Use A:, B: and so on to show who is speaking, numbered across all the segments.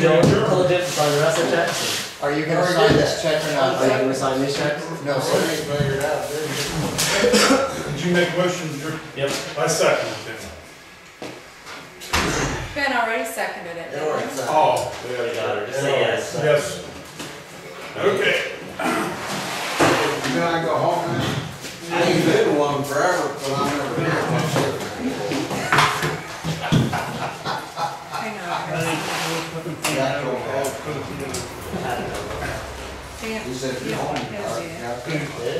A: Bill Diligent and sign the rest of the checks?
B: Are you gonna
C: Already
B: sign
C: did
B: this check or not?
A: Are you gonna sign these checks?
B: No,
C: Already
B: sir.
C: figured out, didn't you?
D: Did you make motions, Drew?
A: Yep.
D: I second it then.
E: Ben already seconded it.
C: It already signed.
D: Oh,
A: There you go. Just say yes.
D: yes. Okay,
C: You gonna go home now? I ain't been to one forever, but I'm never here.
E: I know.
C: Got to go home.
E: Dan,
C: He said,
E: you
C: you
E: don't
C: home,
E: want
C: you
E: his, do you?
C: got to go.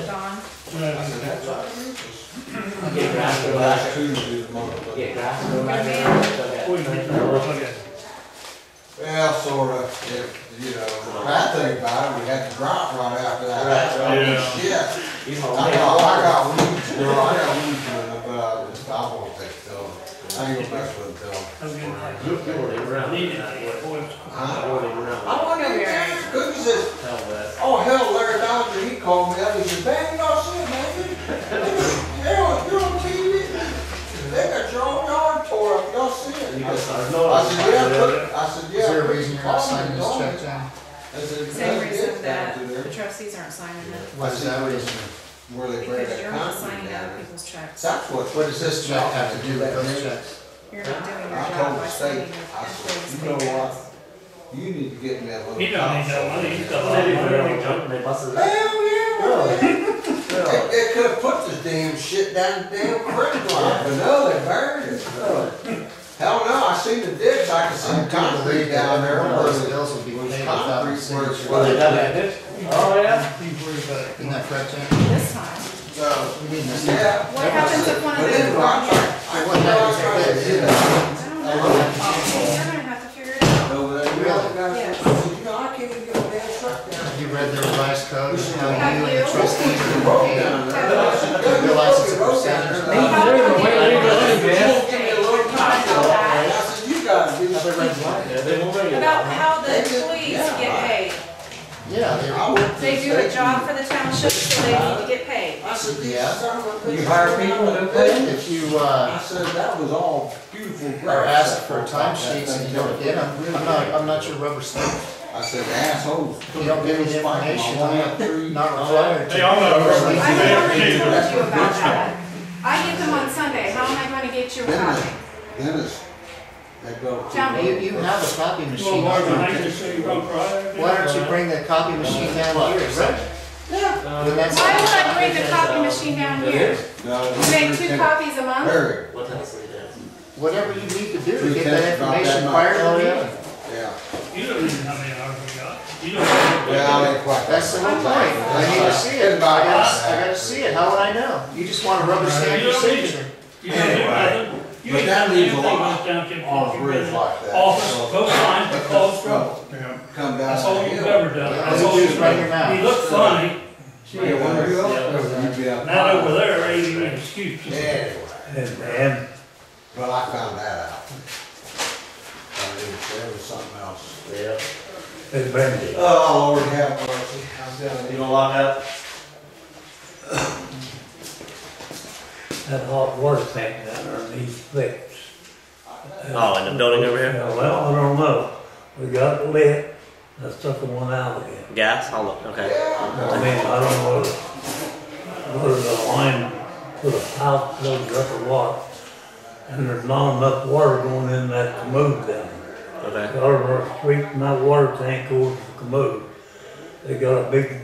E: Don,
C: I said, that's all right.
A: Get grafted over
C: Last
A: that.
C: Tuesday tomorrow, but,
A: Get grafted over
E: Good
A: that.
D: we can do it again.
C: well, sort of, if, you know, the bad thing about it, we had to drop right after that.
A: Right,
D: right.
C: Shit.
A: He's
C: I
A: my
C: got, I
A: only
C: got weeds, you know, I got weeds, in it, but I just, I won't take till, I ain't gonna mess with till. spring.
A: I won't even round. I
C: Huh?
A: won't even round.
C: I want to get cookies this
A: Hell, that.
C: Oh, hell, Larry Dodger, he called me up, he said, man, you know, shit, man, hell, you're on TV, they got your own yard tore up, y'all see
A: You
C: it?
A: can
C: I
A: sign. No, I'm
C: said, yeah,
A: signing
C: cook, I said, yeah.
B: Is there a
C: cook
B: reason you're not
C: called
B: signing
C: me,
B: this
C: told me."
B: check, John?
C: I said,
E: same
C: "Nothing
E: reason
C: gets
E: that
C: down to
E: the
C: there
E: trustees aren't signing it,
B: What is that reason?
C: Where they bring
E: because
C: that
E: you're not
C: concrete
E: signing
C: down.
E: other people's checks.
C: That's what.
B: What does this check have to do with those checks?
E: You're not doing your
C: I
E: job
C: told
E: by
C: the
E: signing
C: state,
E: your
C: I said,
E: employees'
C: "You know what?
E: paychecks.
C: You need to get me that little.
F: He don't need that money. He's
A: They
F: got-
A: do their own junk and they busted it up.
C: Hell, yeah.
A: Really?
C: They,
A: Really?
C: they could have put this damn shit down the damn creek line, but no, they buried it.
A: Really?
C: Hell no, I seen the ditch, I could see
B: I can't
C: concrete
B: believe that
C: down there,
B: every one of those
C: but
B: bills will be paid without
C: concrete
B: the
C: where it's.
B: signature.
A: Well, they done that, Oh, yeah?
F: He's worried about it.
B: Isn't that correct, John?
E: This time,
C: So,
B: You mean this?
C: yeah.
E: what happens if one
C: But in
E: of them
C: the
E: wrong here?
C: contract, I went down there, you know,
E: I don't know, Oh, you're gonna have to figure it out.
C: over there, you know, guys, I said, you know, I can't even get a damn truck down.
B: Have you read the revised code, and how you and
E: Have
B: the
E: you?
B: trustees are
C: Road
B: paid?
C: down there. Good
B: Realize it's a
C: road down there.
B: percentage.
C: Uh,
A: They're the way they go, man.
C: You won't give me a little time, you know, and I said, you gotta do
B: Have they read the
C: something.
B: law?
A: Yeah, they won't bring it
E: About
A: up.
E: how the employees get paid.
B: Yeah, they're-
C: I went to
E: They do
C: the
E: a
C: state
E: job for the township, so they need to get paid.
C: I said, these
B: Yeah.
C: son of a bitches.
B: You hire people
C: to pay?
B: if you, uh,
C: I said, that was all beautiful.
B: are
C: grass
B: asked
C: that
B: for
C: walked
B: time
C: out that
B: sheets and you
C: thing.
B: don't get them, I'm not, I'm not your rubber stamp.
C: I said, assholes.
B: You don't give me the information, I'm not required
D: Hey,
B: to.
D: I'm not
E: I've
D: ready.
E: already told you about that. I get them on Sunday, how am I gonna get your
C: Then
E: copy?
C: they, then it's, they go.
E: Tell me.
B: You, you have a copy
F: Well,
B: machine.
F: Marvin, I
B: Why
F: can see you on Friday.
B: don't you bring the copy machine down here?
E: Yeah.
A: Um,
B: Then that's-
E: Why would I bring the copy machine down here?
C: No,
E: You make two
C: Lieutenant
E: copies a month?
C: Perry,
A: What else we did?
B: Whatever you need to do to
C: Two
B: get
C: tenths
B: that
C: about that
B: information
C: much.
B: prior to
A: Oh,
B: the
A: yeah.
B: meeting.
C: yeah.
F: You don't even have any hours we got. You don't.
C: Yeah, I ain't quite.
B: That's the whole point. I need to see it. I gotta, I gotta see it. How would I know? You just want a rubber stamp your signature.
F: You don't do nothing. You
C: But
F: ain't
C: that
F: got
C: leaves a
F: anything
C: lot
F: with down Kip
C: On
F: Fork.
C: a bridge like that.
F: Office, both
C: so-
F: lines, closed road.
C: Well,
D: Yeah.
C: Come down.
F: That's all
C: the
F: you've
C: hill.
F: ever done.
B: All
F: That's all
B: you do
F: you've
B: is run your
F: done. You
B: mouth.
F: look funny,
C: Yeah, where you
A: Yeah.
C: go, you'd be out.
F: not over there, ain't even an excuse.
C: Anyway,
F: Man.
C: well, I found that out. I mean, there was something else.
A: Yeah.
C: Oh, Lord have mercy, I'm telling
A: You
C: you.
A: gonna lock up?
G: that hot water tank down there needs fixed.
A: Oh, in the building over here?
G: Yeah, Well, I don't know. We got it lit, I stuck the one out again.
A: Gas? I'll look, okay.
G: I mean, I don't know whether, whether the line for the pipe plugs up or what. And there's not enough water going in that commode down there.
A: Okay.
G: Out of our street, my water tank goes to the commode. They got a big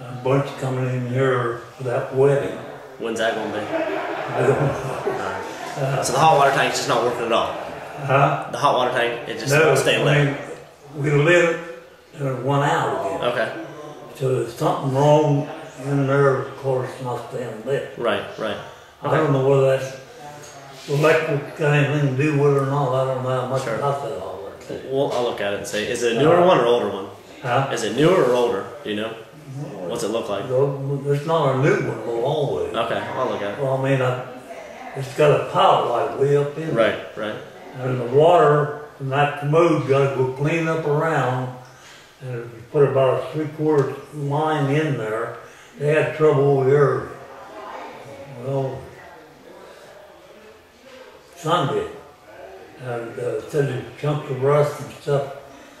G: uh, bunch coming in here for that wedding.
A: When's that gonna be?
G: I don't know.
A: So the hot water tank's just not working at all.
G: Huh?
A: The hot water tank, it just
G: No,
A: won't stay
G: I
A: lit.
G: mean, we lit it and it went out again.
A: Okay.
G: So there's something wrong in there, of course, not staying lit.
A: Right, right.
G: I don't know whether that's electric got anything to do with it or not. I don't know how much
A: Sure.
G: about that all works.
A: Well, I'll look at it and see. Is it a newer one or older one?
G: Uh-huh. Huh?
A: Is it newer or older? Do you know? What's it look like?
G: Though, There's not a new one, though, always.
A: Okay, I'll look at it.
G: Well, I mean, I, it's got a power light way up in there.
A: Right, right.
G: And the water from that commode gotta go clean up around. And if you put about a three quarter line in there, they had trouble over here. Well, Sunday. And uh, said there's chunks of rust and stuff